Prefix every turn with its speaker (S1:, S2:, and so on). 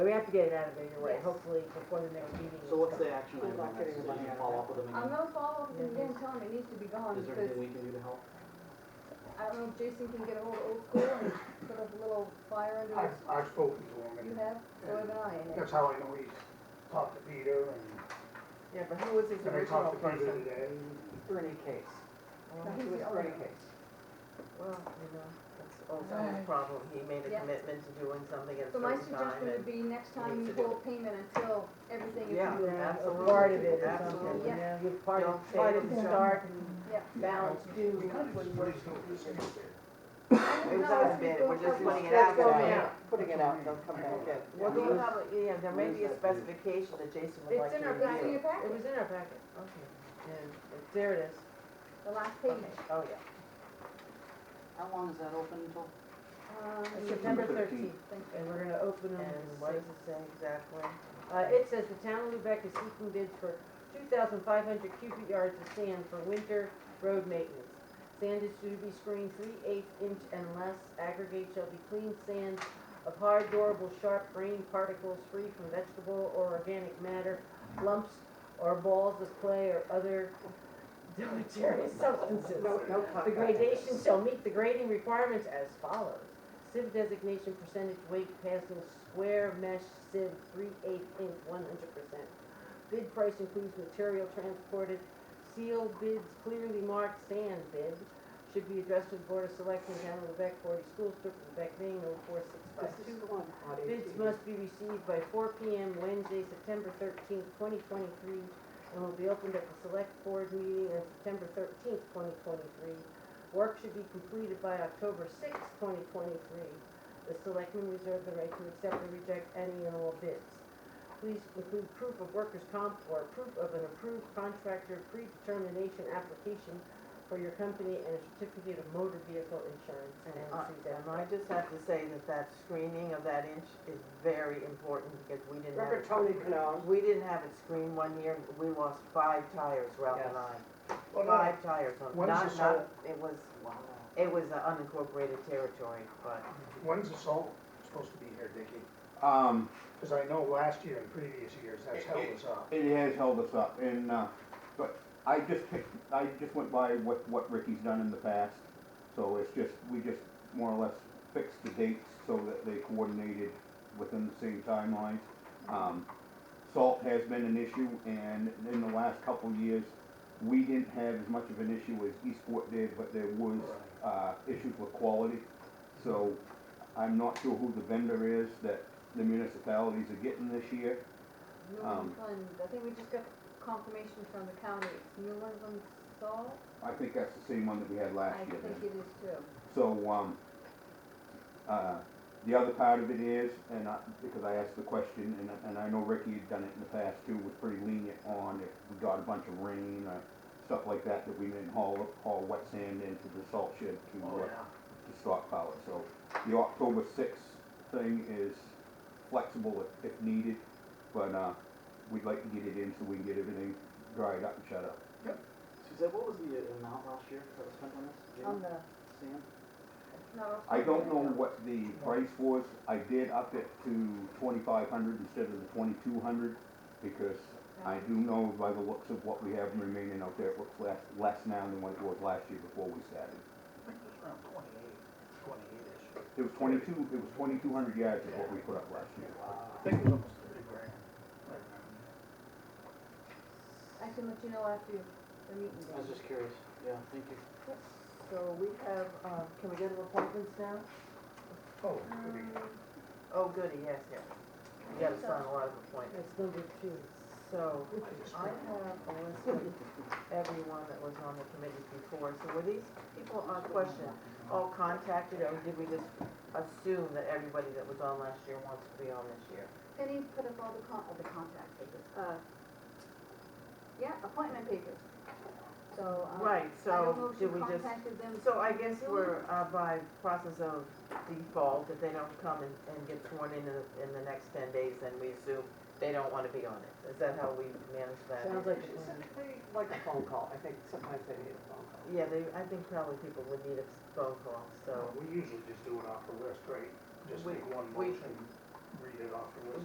S1: we have to get it out of there, you're right,
S2: Yes.
S1: hopefully before the next meeting.
S3: So what's the action
S2: I'm
S3: item
S2: not
S3: on that?
S2: getting
S3: Did
S2: the money
S3: you
S2: out of
S3: follow
S2: that.
S3: up with them
S2: I'm
S3: again?
S2: gonna follow up with him again, tell him it needs to be gone,
S3: Is there anything
S2: because
S3: we can do to help?
S2: I don't know if Jason can get ahold of old school and put up a little fire under
S4: I've,
S2: his,
S4: I've spoken to him,
S2: you
S4: and
S2: have, so have an eye in it.
S4: that's how I know he's talked to Peter, and,
S5: Yeah, but who was his
S4: and I
S5: original
S4: talked to Peter
S5: person?
S4: today.
S5: Bernie Case.
S2: No,
S5: He
S2: he's
S5: was
S2: the
S5: Bernie
S2: owner.
S5: Case.
S1: Well, you know,
S5: That's Alzheimer's problem. He made a
S2: Yeah.
S5: commitment to doing something at a
S2: So my
S5: certain
S2: suggestion
S5: time
S2: would
S5: and.
S2: be next time
S5: needs
S2: you
S5: to do
S2: hold payment until everything is
S5: Yeah.
S2: moved.
S1: yeah, a
S5: absolutely,
S1: part of it or something,
S5: absolutely.
S1: you know, you part
S5: Don't
S1: of, part
S5: say
S1: of the
S5: it's
S1: start and
S2: Yeah.
S1: balance due.
S4: We kind of just put his notice in
S5: It was
S2: No,
S5: on
S2: it's
S5: bid,
S2: before-
S5: we're just
S2: okay.
S5: putting it out
S1: Let's go
S5: there.
S1: now.
S6: Putting it out, they'll come back in.
S5: Well, do you
S6: Yeah.
S5: have, a- yeah, there may be a
S6: Where's that bid?
S5: specification that Jason would
S2: It's
S5: like
S2: in
S5: you
S2: our,
S5: to
S2: it's in your
S5: review.
S2: packet,
S5: It was in our packet, okay. And it- there it is.
S2: the last payment.
S5: Oh, yeah.
S6: How long is that open until?
S2: Um,
S1: It's September thirteenth,
S4: Thirteenth.
S2: thank you.
S1: and we're gonna open them.
S5: And what does it say exactly?
S1: Uh, it says the town of Lubec is seeking bids for two thousand five hundred cubic yards of sand for winter road maintenance. Sand is to be screened three eighths inch and less, aggregate shall be clean sand of hard, durable, sharp grain particles free from vegetable or organic matter, lumps or balls of clay or other deleterious substances.
S5: No, no
S1: The gradation shall meet the grading requirements as follows. Sieve designation percentage weight passing square mesh sieve three eighth inch one hundred percent. Bid price includes material transported, sealed bids, clearly marked sand bid. Should be addressed to the Board of Selectmen, Town of Lubec, Forty School District, Lubec, Maine, oh four six five two.
S6: the one.
S1: Bids must be received by four P M Wednesday, September thirteenth, twenty twenty-three, and will be opened at the select board meeting on September thirteenth, twenty twenty-three. Work should be completed by October sixth, twenty twenty-three. The selectmen reserve the right to accept or reject any and all bids. Please include proof of workers' comp or proof of an approved contractor predetermination application for your company and a certificate of motor vehicle insurance and
S5: And I,
S1: see that.
S5: and I just have to say that that screening of that inch is very important because we didn't have.
S6: Remember
S5: it-
S6: Tony Canales?
S5: We didn't have it screened one year, we lost five tires, Ralph and I.
S4: Well, no,
S5: Five tires, on-
S4: What is
S5: not,
S4: this
S5: not,
S4: all-
S5: it was, it was uh, unincorporated territory, but
S4: When's the salt supposed to be here, Dickie?
S7: Um,
S4: Because I know last year and previous years, that's held us up.
S7: it has held us up and, uh, but I just picked, I just went by what, what Ricky's done in the past. So it's just, we just more or less fixed the dates so that they coordinated within the same timelines. Um, salt has been an issue and in the last couple of years, we didn't have as much of an issue as Eastport did, but there was, uh, issues with quality. So I'm not sure who the vendor is that the municipalities are getting this year.
S2: Newland
S7: Um,
S2: Fund, I think we just got confirmation from the county, it's Newland Fund Salt,
S7: I think that's the same one that we had last
S2: I
S7: year
S2: think
S7: then.
S2: it is too.
S7: So, um, uh, the other part of it is, and I, because I asked the question, and, and I know Ricky had done it in the past too, was pretty lenient on if we got a bunch of rain or stuff like that, that we didn't haul, haul wet sand into the salt shed to,
S3: Oh,
S7: uh,
S3: yeah.
S7: to stockpile it. So the October sixth thing is flexible if, if needed, but, uh, we'd like to get it in so we can get everything dried up and shut up.
S3: Suzanne, what was the uh, amount last year that was spent on this? Do you
S2: On
S3: know?
S2: the,
S3: Sam?
S2: not off.
S7: I don't know what the price was, I did up it to twenty-five hundred instead of the twenty-two hundred, because I do know by the looks of what we have remaining out there, it looks less, less now than what it was last year before we started.
S4: I think it was around twenty-eight, twenty-eight-ish.
S7: It was twenty-two, it was twenty-two hundred yards is what we put up last year.
S3: Uh,
S4: I think it was almost thirty grand. I remember.
S2: I can let you know after the meeting
S3: I
S2: day.
S3: was just curious, yeah, thank you.
S5: So we have, uh, can we go to appointments now?
S4: Oh, could be.
S2: Um,
S5: Oh, goody, yes, yes. You gotta sign a lot of appointments.
S1: That's number two.
S5: So
S4: I just-
S5: I have a list of everyone that was on the committees before, so were these people on question all contacted, or did we just assume that everybody that was on last year wants to be on this year?
S2: Penny put up all the con, uh, the contact papers, uh, yeah, appointment papers. So, um, I
S5: Right,
S2: don't know if
S5: so
S2: she
S5: did we just,
S2: contacted them.
S5: so I guess we're, uh, by process of default, if they don't come and, and get sworn in in the, in the next ten days, then we assume they don't wanna be on it. Is that how we manage that?
S1: Sounds like a
S6: It's
S1: plan.
S6: something Like a phone call, I think sometimes they need a phone call.
S5: Yeah, they, I think probably people would need a phone call, so.
S4: Uh, We usually just do it off the list, right? Just
S5: We-
S4: make one
S5: we-
S4: motion, read it off the list.